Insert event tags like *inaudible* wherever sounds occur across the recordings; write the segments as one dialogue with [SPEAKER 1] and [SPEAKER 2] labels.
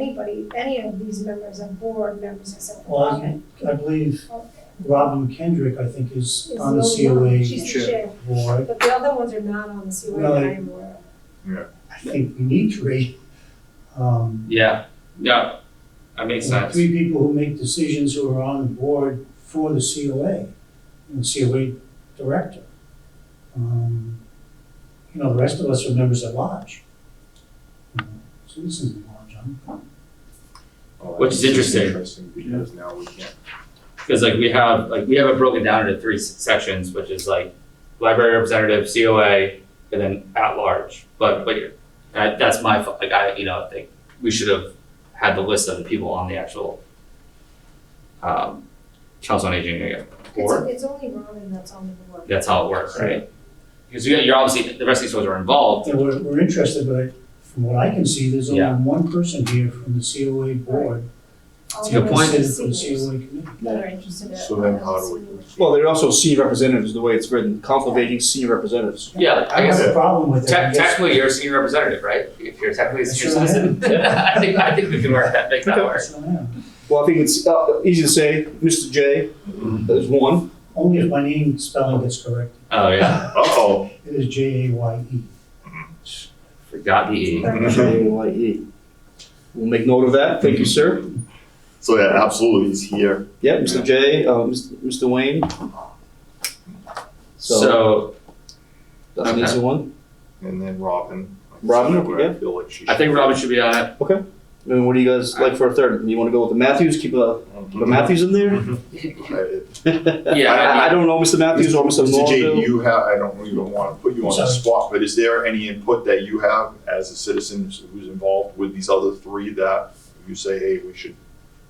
[SPEAKER 1] anybody, any of these members of board, members of some
[SPEAKER 2] Well,
[SPEAKER 1] department.
[SPEAKER 2] I I believe
[SPEAKER 1] Okay.
[SPEAKER 2] Robin Kendrick, I think, is
[SPEAKER 1] Is
[SPEAKER 2] on the
[SPEAKER 1] the only one.
[SPEAKER 2] COA
[SPEAKER 1] She's the
[SPEAKER 3] Sure.
[SPEAKER 1] chair,
[SPEAKER 2] board.
[SPEAKER 1] but the other ones are not on the COA
[SPEAKER 2] Well,
[SPEAKER 1] that
[SPEAKER 2] I-
[SPEAKER 1] I'm aware
[SPEAKER 2] I think we need three. Um,
[SPEAKER 3] Yeah, yeah, that makes sense.
[SPEAKER 2] Three people who make decisions who are on the board for the COA and COA director. Um, You know, the rest of us are members at large. You know, Citizens at large, I'm
[SPEAKER 3] Which is interesting.
[SPEAKER 4] Oh, Interesting because now we can't.
[SPEAKER 3] Because like we have, like we have it broken down into three s- sections, which is like library representative, COA, and then at large. But, but you're, that, that's my, fault. like I, you know, like we should have had the list of the people on the actual, um, council on aging, I guess, board.
[SPEAKER 1] of. It's, it's only Robin that's on the board.
[SPEAKER 3] That's how it works, right? Because you- you're obviously, the rest of these folks are involved,
[SPEAKER 2] Yeah, we're, we're interested, but I- from what I can see, there's only
[SPEAKER 3] Yeah.
[SPEAKER 2] one person here from the COA board.
[SPEAKER 1] All
[SPEAKER 3] It's a good
[SPEAKER 1] the
[SPEAKER 2] who's
[SPEAKER 3] point.
[SPEAKER 2] considered
[SPEAKER 1] seniors
[SPEAKER 2] for the COA committee.
[SPEAKER 1] That are interested in.
[SPEAKER 4] So then how do we-
[SPEAKER 5] Well, they're also senior representatives, the way it's written, conflict of aging senior representatives.
[SPEAKER 3] yeah,
[SPEAKER 2] I
[SPEAKER 3] I
[SPEAKER 2] have
[SPEAKER 3] guess.
[SPEAKER 2] a problem with that.
[SPEAKER 3] Te- Technically, you're a senior representative, right? If you're technically a senior
[SPEAKER 2] Sure I am.
[SPEAKER 3] citizen. *laughs*
[SPEAKER 5] *laughs*
[SPEAKER 3] I think, I think we can work that, make that work.
[SPEAKER 5] Well, I think it's uh, easy to say, Mr. J
[SPEAKER 4] Mm-hmm.
[SPEAKER 5] is one.
[SPEAKER 2] Only if my name spelling gets correct.
[SPEAKER 3] Oh, yeah,
[SPEAKER 4] Uh-oh.
[SPEAKER 2] It is J A Y E.
[SPEAKER 3] forgot the E.
[SPEAKER 4] Mm-hmm.
[SPEAKER 5] J A Y E. We'll make note of that. Thank you, sir.
[SPEAKER 4] So yeah, absolutely, he's here.
[SPEAKER 5] Yep, Mr. J, uh, Mr. Wayne. So
[SPEAKER 3] So
[SPEAKER 5] that's an easy one.
[SPEAKER 4] And then Robin. Like I said,
[SPEAKER 5] Robin,
[SPEAKER 4] where I
[SPEAKER 5] yeah.
[SPEAKER 4] feel like she
[SPEAKER 3] I think Robin should be on it.
[SPEAKER 5] And what do you guys like for a third? You want to go with the Matthews? Keep uh, the
[SPEAKER 4] should-
[SPEAKER 5] Matthews in there.
[SPEAKER 4] Mm-hmm. I-
[SPEAKER 3] Yeah,
[SPEAKER 5] *laughs* I, I- I
[SPEAKER 3] I mean,
[SPEAKER 5] don't know Mr. Matthews or Mr.
[SPEAKER 4] Mr. J,
[SPEAKER 5] Norville.
[SPEAKER 4] you have, I don't even want to put you on the
[SPEAKER 2] Sorry.
[SPEAKER 4] spot, but is there any input that you have as a citizen who's involved with these other three that you say, hey, we should,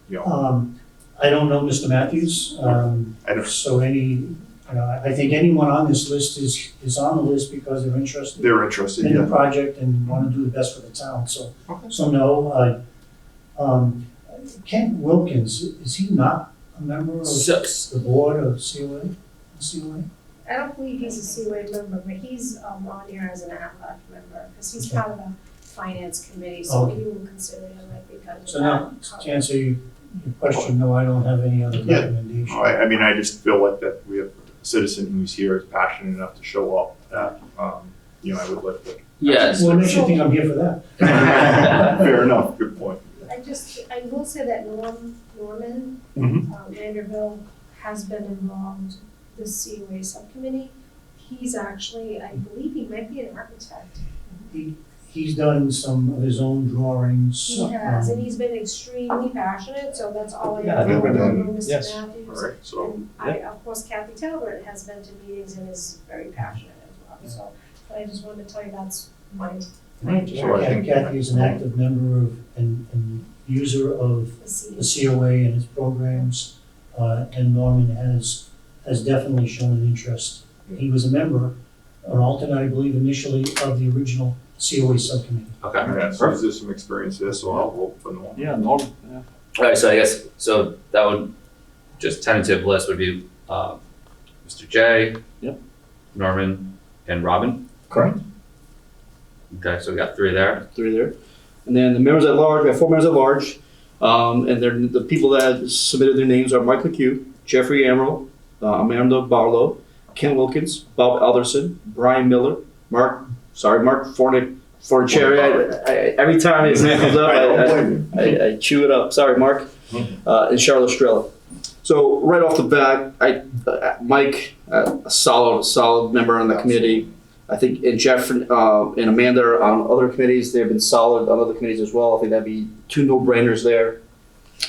[SPEAKER 4] you
[SPEAKER 5] Uh.
[SPEAKER 4] know,
[SPEAKER 2] Um, I don't know Mr. Matthews, um,
[SPEAKER 4] I don't,
[SPEAKER 2] so any, you know, I I think anyone on this list is, is on the list because they're interested.
[SPEAKER 4] they're interested,
[SPEAKER 2] in the
[SPEAKER 4] yeah.
[SPEAKER 2] project and want to do the best for the town, so,
[SPEAKER 4] Okay.
[SPEAKER 2] so no, uh, um, Ken Wilkins, is he not a member of
[SPEAKER 3] so,
[SPEAKER 2] the board of COA? COA?
[SPEAKER 1] I don't believe he's a COA member, but he's um, on here as an at-large member, because he's
[SPEAKER 2] Okay.
[SPEAKER 1] part of the finance committee, so
[SPEAKER 2] Okay.
[SPEAKER 1] we will consider him like because of
[SPEAKER 2] So now,
[SPEAKER 1] that.
[SPEAKER 2] To answer your your question, no, I don't have any other
[SPEAKER 4] Yeah.
[SPEAKER 5] Mm-hmm.
[SPEAKER 2] recommendation.
[SPEAKER 4] I, I mean, I just feel like that we have a citizen who's here is passionate enough to show up that, um, you know, I would like to.
[SPEAKER 3] yes.
[SPEAKER 2] Well, it makes you think I'm here for that.
[SPEAKER 4] *laughs* Fair enough, good point.
[SPEAKER 1] I just, I will say that Norm, Norman,
[SPEAKER 4] Mhm.
[SPEAKER 1] um, Vanderbilt has been involved with COA subcommittee. He's actually, I believe he might be an architect.
[SPEAKER 2] He's done some of his own drawings.
[SPEAKER 1] He has,
[SPEAKER 2] um,
[SPEAKER 1] and he's been extremely passionate, so that's all I
[SPEAKER 5] Yeah,
[SPEAKER 1] know
[SPEAKER 4] I've never
[SPEAKER 1] about
[SPEAKER 5] done-
[SPEAKER 1] Mr.
[SPEAKER 5] yes.
[SPEAKER 1] Matthews.
[SPEAKER 4] All right, so,
[SPEAKER 1] And I, of course, Kathy Talbert has been to meetings and is very passionate as well, so, but I just wanted to tell you that's my, my
[SPEAKER 4] So I think-
[SPEAKER 2] Kathy is an active member of, and, and user of the
[SPEAKER 1] decision.
[SPEAKER 2] COA and its programs, uh, and Norman has, has definitely shown an interest. He was a member, an alternate, I believe, initially of the original COA subcommittee.
[SPEAKER 3] Okay.
[SPEAKER 4] yeah, so there's some experience there, so I'll vote for Norm.
[SPEAKER 5] Yeah, Norm. Yeah.
[SPEAKER 3] All right. So I guess so that would just tentative list would be um, Mr. J.
[SPEAKER 5] Yep.
[SPEAKER 3] Norman and Robin.
[SPEAKER 5] Correct.
[SPEAKER 3] Okay, so we got three there.
[SPEAKER 5] three there. And then the members at large, we have four members at large. Um, and then the people that submitted their names are Mike McHugh, Jeffrey Amaral, uh, Amanda Barlow, Ken Wilkins, Bob Alderson, Brian Miller, Mark, sorry, Mark Fornic, Fornicherry. I, I, every time his name comes up,
[SPEAKER 4] I don't
[SPEAKER 5] I, I,
[SPEAKER 4] blame you.
[SPEAKER 5] I, I chew it up. Sorry, Mark. Uh, and Charlotte Estrella. So right off the bat, I uh, Mike, uh, a solid solid member on the committee. I think and Jeff uh, and Amanda are on other committees. They've been solid on other committees as well. I think that'd be two no brainers there.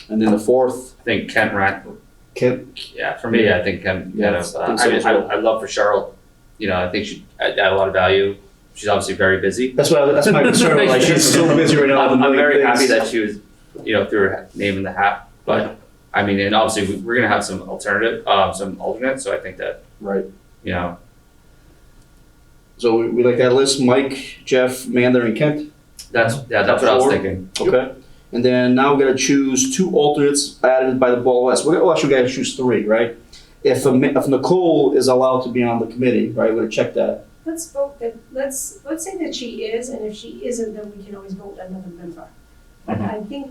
[SPEAKER 5] And then the fourth,
[SPEAKER 3] I think Kent Rack.
[SPEAKER 5] Kent.
[SPEAKER 3] Yeah, for me, I think Kent.
[SPEAKER 5] Yeah,
[SPEAKER 3] kind
[SPEAKER 5] I
[SPEAKER 3] of, uh,
[SPEAKER 5] think so
[SPEAKER 3] I, mean,
[SPEAKER 5] as
[SPEAKER 3] I,
[SPEAKER 5] well.
[SPEAKER 3] I love for Cheryl. You know, I think she add, add a lot of value. She's obviously very busy.
[SPEAKER 5] That's what I, Oh, that's *laughs* my concern. like
[SPEAKER 3] *laughs*
[SPEAKER 5] she's so busy right now. with
[SPEAKER 3] I'm,
[SPEAKER 5] a
[SPEAKER 3] I'm
[SPEAKER 5] million
[SPEAKER 3] very happy
[SPEAKER 5] things.
[SPEAKER 3] that she was, you know, threw her name in the hat. But I mean, and obviously we, we're gonna have some alternative, um, some alternates. So I think that
[SPEAKER 5] right.
[SPEAKER 3] you know,
[SPEAKER 5] So we, we like that list: Mike, Jeff, Amanda, and Kent.
[SPEAKER 3] that's yeah, that's what I was
[SPEAKER 5] Four.
[SPEAKER 3] thinking.
[SPEAKER 5] Okay. And then now we're gonna choose two alternates added by the Ball West. We're well, actually we gotta choose three, right? If um, if Nicole is allowed to be on the committee, right? We're gonna check that.
[SPEAKER 1] Let's vote that, let's, let's say that she is, and if she isn't, then we can always vote another member. But I think